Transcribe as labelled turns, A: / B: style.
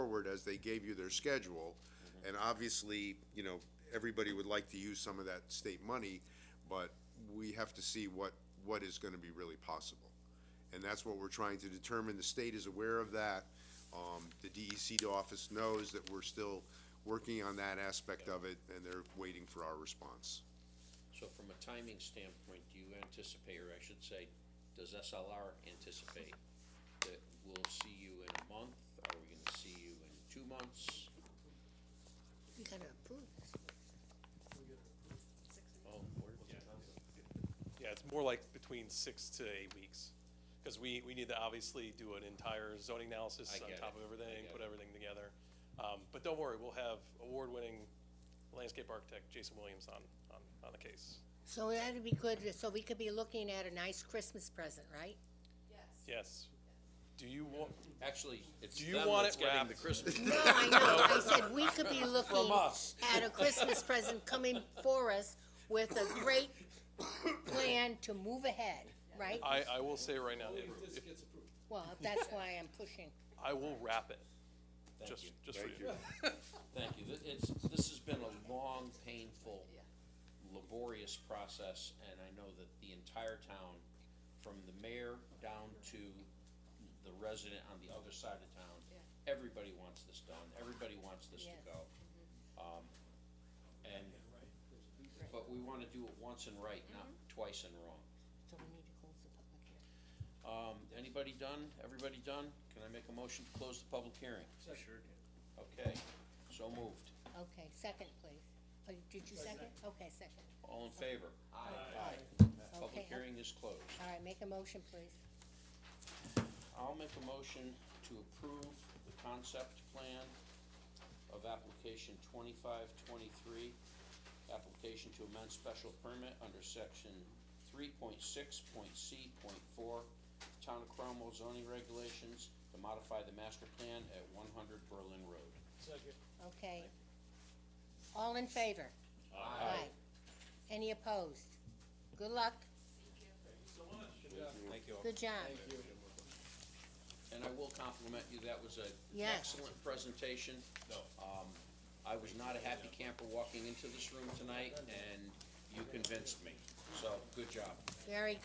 A: as they gave you their schedule. And obviously, you know, everybody would like to use some of that state money, but we have to see what, what is gonna be really possible. And that's what we're trying to determine. The state is aware of that. Um, the DEC office knows that we're still working on that aspect of it, and they're waiting for our response.
B: So from a timing standpoint, do you anticipate, or I should say, does SLR anticipate that we'll see you in a month? Are we gonna see you in two months?
C: We gotta approve this.
B: Oh, we're, yeah,
D: Yeah, it's more like between six to eight weeks, because we, we need to obviously do an entire zoning analysis
B: I
D: on
B: get
D: top
B: it,
D: of
B: I
D: everything,
B: get
D: put
B: it.
D: everything together. Um, but don't worry, we'll have award-winning landscape architect Jason Williams on, on, on the case.
C: So that'd be good, so we could be looking at a nice Christmas present, right?
D: Yes. Do you want,
B: actually, it's
D: Do you
B: them
D: want
B: that's
D: it
B: getting the
D: wrapped?
B: Christmas.
C: No, I know, I said we could be looking
B: us.
C: at a Christmas present coming for us with a great plan to move ahead, right?
D: I, I will say right now, if, if,
C: Well, that's why I'm pushing.
D: I will wrap it,
B: Thank
D: just,
B: you,
D: just for you.
B: thank you. Th- It's, this has been a long, painful, laborious process, and I know that the entire town, from the mayor down to the resident on the other side of town, everybody wants this done, everybody wants this to
C: Yes.
B: go. Um, and, but we wanna do it once and right, not twice and wrong.
C: So we need to close the public hearing.
B: Um, anybody done? Everybody done? Can I make a motion to close the public hearing? Sure Okay, so moved.
C: Okay, second, please. Oh, Did you second? Okay, second.
B: All in favor? Aye. Public
C: Okay.
B: hearing is closed.
C: All right, make a motion, please.
B: I'll make a motion to approve the concept plan of application twenty-five twenty-three, application to amend special permit under section three point six point C point four, Town of Cromwell zoning regulations to modify the master plan at one hundred Berlin Road.
C: Okay. All in favor? Aye. Any opposed? Good luck.
B: Thank you.
C: Good job.
B: And I will compliment you, that was a an
C: Yes.
B: excellent presentation. Um, I was not a happy camper walking into this room tonight, and you convinced me, so, good job.
C: Very